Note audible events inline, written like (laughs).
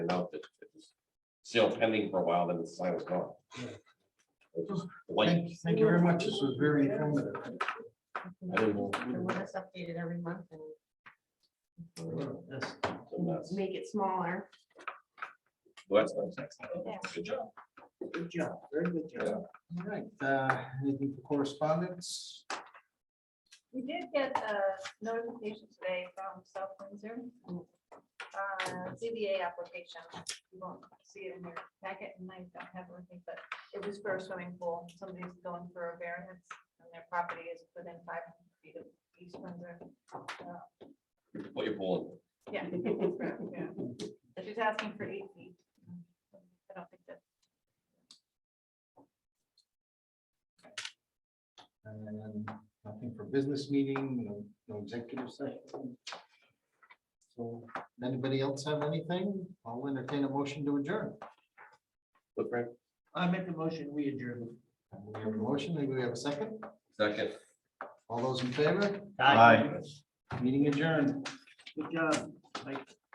out that it was still pending for a while, then the sign was gone. It was Like, Thank thank you very much. This was very informative. I didn't know. And let us update it every month and Yes. that's- make it smaller. well, that's nice. Good job. Good job. Very good job. All right, uh, anything for correspondence? We did get a notification today from South Windsor. Mm. uh, ZBA application. You won't see it in your packet and I don't have anything, but it was for a swimming pool. Somebody's going for a variance and their property is within five hundred feet of East Windsor. What you're pulling. Yeah. (laughs) yeah. But She's asking for eight feet. I don't think that, And then nothing for business meeting, no, no executive session. So, anybody else have anything? I'll entertain a motion to adjourn. Look, Frank, I make the motion, we adjourn. We have a motion, and we have a second. second. All those in favor? Meeting adjourned. Good job.